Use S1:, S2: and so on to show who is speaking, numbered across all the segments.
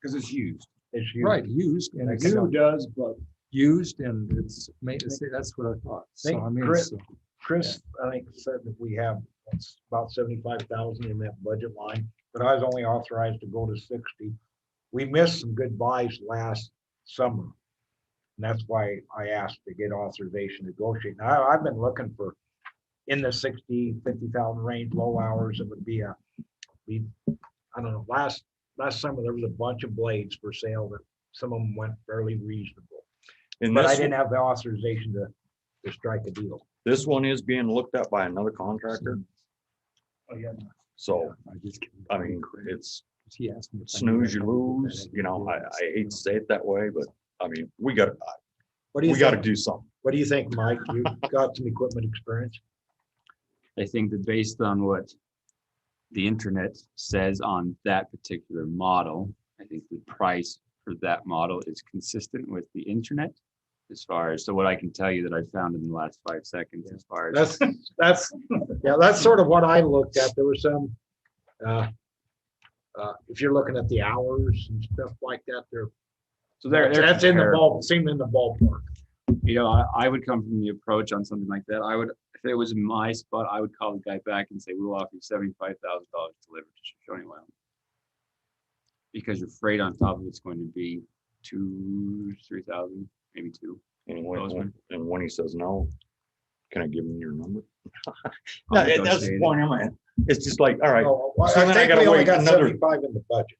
S1: because it's used.
S2: It's used.
S3: Right, used and it's
S2: New does, but
S3: used and it's made, see, that's what I thought. So
S2: Think
S3: I mean,
S2: grit.
S3: so-
S2: Chris, I think, said that we have it's about seventy-five thousand in that budget line, but I was only authorized to go to sixty. We missed some good buys last summer. And that's why I asked to get authorization to negotiate. Now, I've been looking for in the sixty, fifty thousand range, low hours, it would be a, we, I don't know, last, last summer, there was a bunch of blades for sale that some of them went fairly reasonable.
S4: And
S2: But I
S4: this,
S2: didn't have the authorization to, to strike a deal.
S4: this one is being looked at by another contractor,
S2: Oh, yeah.
S4: so,
S3: I just-
S4: I mean, it's
S3: He asked me if I knew
S4: snooze, you
S3: that company, but I
S4: lose,
S3: didn't
S4: you know, I,
S3: realize,
S4: I
S3: you know.
S4: hate to say it that way, but, I mean, we got,
S2: What do you
S4: we gotta
S2: think?
S4: do something.
S2: What do you think, Mike? You've got some equipment experience?
S5: I think that based on what the internet says on that particular model, I think the price for that model is consistent with the internet. As far as, so what I can tell you that I found in the last five seconds as far as,
S2: That's, that's, yeah, that's sort of what I looked at. There were some, uh, uh, if you're looking at the hours and stuff like that, they're,
S5: so there,
S2: that's in the ball, seemed in the ballpark.
S5: You know, I, I would come from the approach on something like that. I would, if it was in my spot, I would call the guy back and say, we'll offer you seventy-five thousand dollars delivered to Shoshone Wyoming. Because your freight on top of it's going to be two, three thousand, maybe two.
S4: And when,
S5: Bozeman.
S4: and when he says no, can I give him your number?
S5: I'll
S4: No, that's the
S5: negotiate it.
S4: point I'm at. It's just like, all right,
S2: Oh, well,
S4: So
S2: I
S4: then I
S2: think
S4: gotta
S2: we only
S4: wait
S2: got
S4: another-
S2: seventy-five in the budget.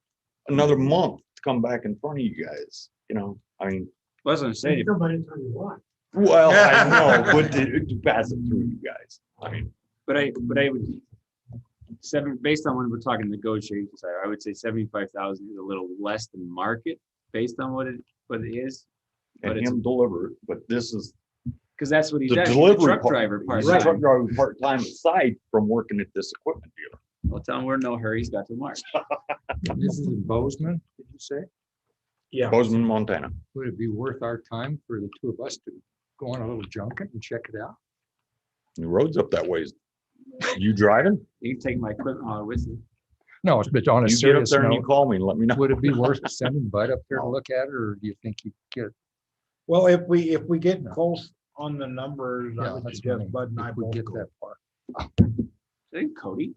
S4: another month to come back in front of you guys, you know, I mean,
S5: Well, That's what I'm saying.
S4: well, I know, but to to pass it through you guys, I mean.
S5: But I, but I would, seven, based on when we're talking negotiations, I- I would say seventy-five thousand is a little less than market based on what it, what it is. But
S4: and
S5: it's,
S4: him deliver, but this is
S5: because that's what he's
S4: the
S5: actually, the
S4: delivery.
S5: truck
S4: part-
S5: driver part.
S4: he's a Truck driver part-time aside from working at this equipment dealer.
S5: Well, tell him we're in no hurry. He's got till March.
S3: This is in Bozeman, did you say?
S2: Yeah.
S4: Bozeman, Montana.
S3: Would it be worth our time for the two of us to go on a little junket and check it out?
S4: The road's up that ways. You driving?
S5: You can take my equipment hauler with you.
S3: No, but on a
S4: You get up
S3: serious
S4: there and you
S3: note,
S4: call me and let me know.
S3: would it be worth sending Bud up there to look at it, or do you think you get?
S2: Well, if we, if we get close on the numbers, I
S3: Yeah,
S2: would
S3: that's
S2: suggest
S3: fine.
S2: Bud and I
S3: If we
S2: both
S3: get
S2: go.
S3: that far.
S5: Is it in Cody?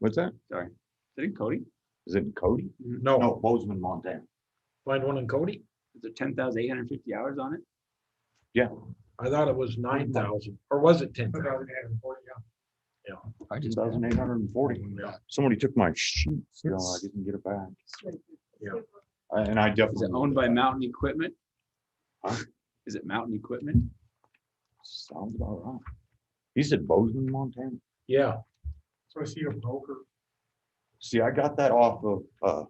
S4: What's that?
S5: Sorry. Is it in Cody?
S4: Is it in Cody?
S2: No,
S4: No, Bozeman, Montana.
S2: find one in Cody?
S5: Is there ten thousand eight hundred fifty hours on it?
S2: I thought it was nine thousand, or was it ten?
S3: I
S4: Two
S3: just.
S4: thousand eight hundred and forty.
S2: Yeah.
S4: Somebody took my sheets. No, I
S3: It's-
S4: didn't get it back.
S2: Yeah.
S4: I- And I definitely.
S5: Is it owned by Mountain Equipment?
S4: Huh?
S5: Is it Mountain Equipment?
S4: Sounds about right. He said Bozeman, Montana.
S2: Yeah.
S3: So I see a broker.
S4: See, I got that off of, uh,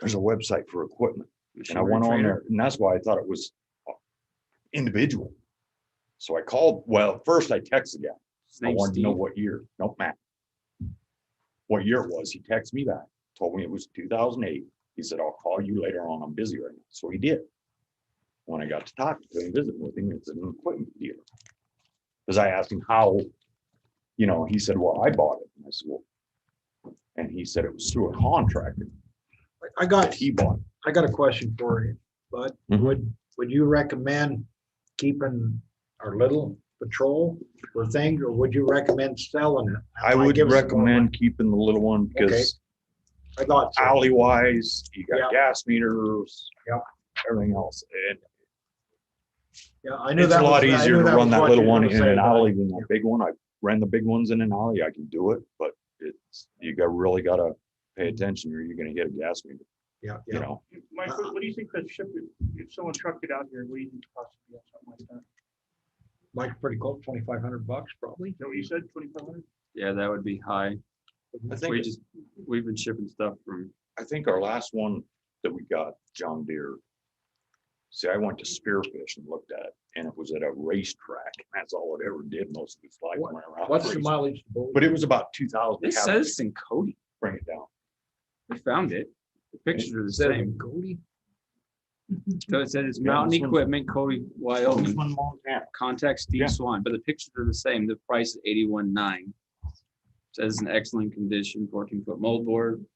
S4: there's a website for equipment and I
S5: Machinery
S4: went on
S5: Trader?
S4: there and that's why I thought it was uh, individual. So I called, well, first I texted the guy.
S5: His
S4: I
S5: name's
S4: wanted to know
S5: Steve.
S4: what year, no, Matt. What year it was. He texted me back, told me it was two thousand eight. He said, I'll call you later on. I'm busy right now. So he did. When I got to talk to him, visit with him, it's an equipment dealer. Cause I asked him how, you know, he said, well, I bought it. And I said, well. And he said it was through a contractor
S2: I
S4: that
S2: got,
S4: he bought.
S2: I got a question for you, Bud.
S4: Mhm.
S2: Would, would you recommend keeping our little patrol or thing, or would you recommend selling it?
S4: I
S2: Might
S4: would
S2: give us more money.
S4: recommend keeping the little one because
S2: I thought, so.
S4: alley wise, you
S2: Yeah.
S4: got gas meters.
S2: Yep.
S4: Everything else. And
S2: yeah, I knew
S4: It's
S2: that.
S4: a lot
S2: was- I
S4: easier
S2: knew
S4: to
S2: was
S4: run that
S2: what
S4: little
S2: you were
S4: one
S2: gonna
S4: in
S2: say,
S4: an
S2: but I-
S4: alley than that big one. I ran the big ones in an alley. I can do it, but it's, you got, really gotta pay attention or you're gonna hit a gas meter,
S2: Yeah, Mm-hmm.
S4: you
S2: yeah.
S4: know?
S6: Mike, what what do you think that ship, if someone trucked it out here, what do you think the cost would be on something like
S2: Like pretty close, twenty-five hundred bucks probably.
S6: that? Is that what you said, twenty-five hundred?
S5: Yeah, that would be high.
S4: I
S5: We
S4: think,
S5: just, we've been shipping stuff from,
S4: I think our last one that we got, John Deere. See, I went to Spearfish and looked at it and it was at a racetrack. That's all it ever did most of its life.
S2: What-
S4: went around
S2: What's the
S4: racing.
S2: mileage? to Bowie?
S4: But it was about two thousand.
S5: this says it's in Cody.
S4: Bring it down.
S5: We found it. The pictures are the
S2: Said it
S5: same.
S2: in Cody?
S5: So it said it's
S4: Yeah,
S5: Mountain
S4: this one's-
S5: Equipment, Cody,
S2: Oh,
S5: Wyoming.
S4: Bozeman, Montana.
S5: Contact
S4: Yeah.
S5: Steve Swan, but the pictures are the same. The price is eighty-one nine. Says in excellent condition, fourteen foot moldboard,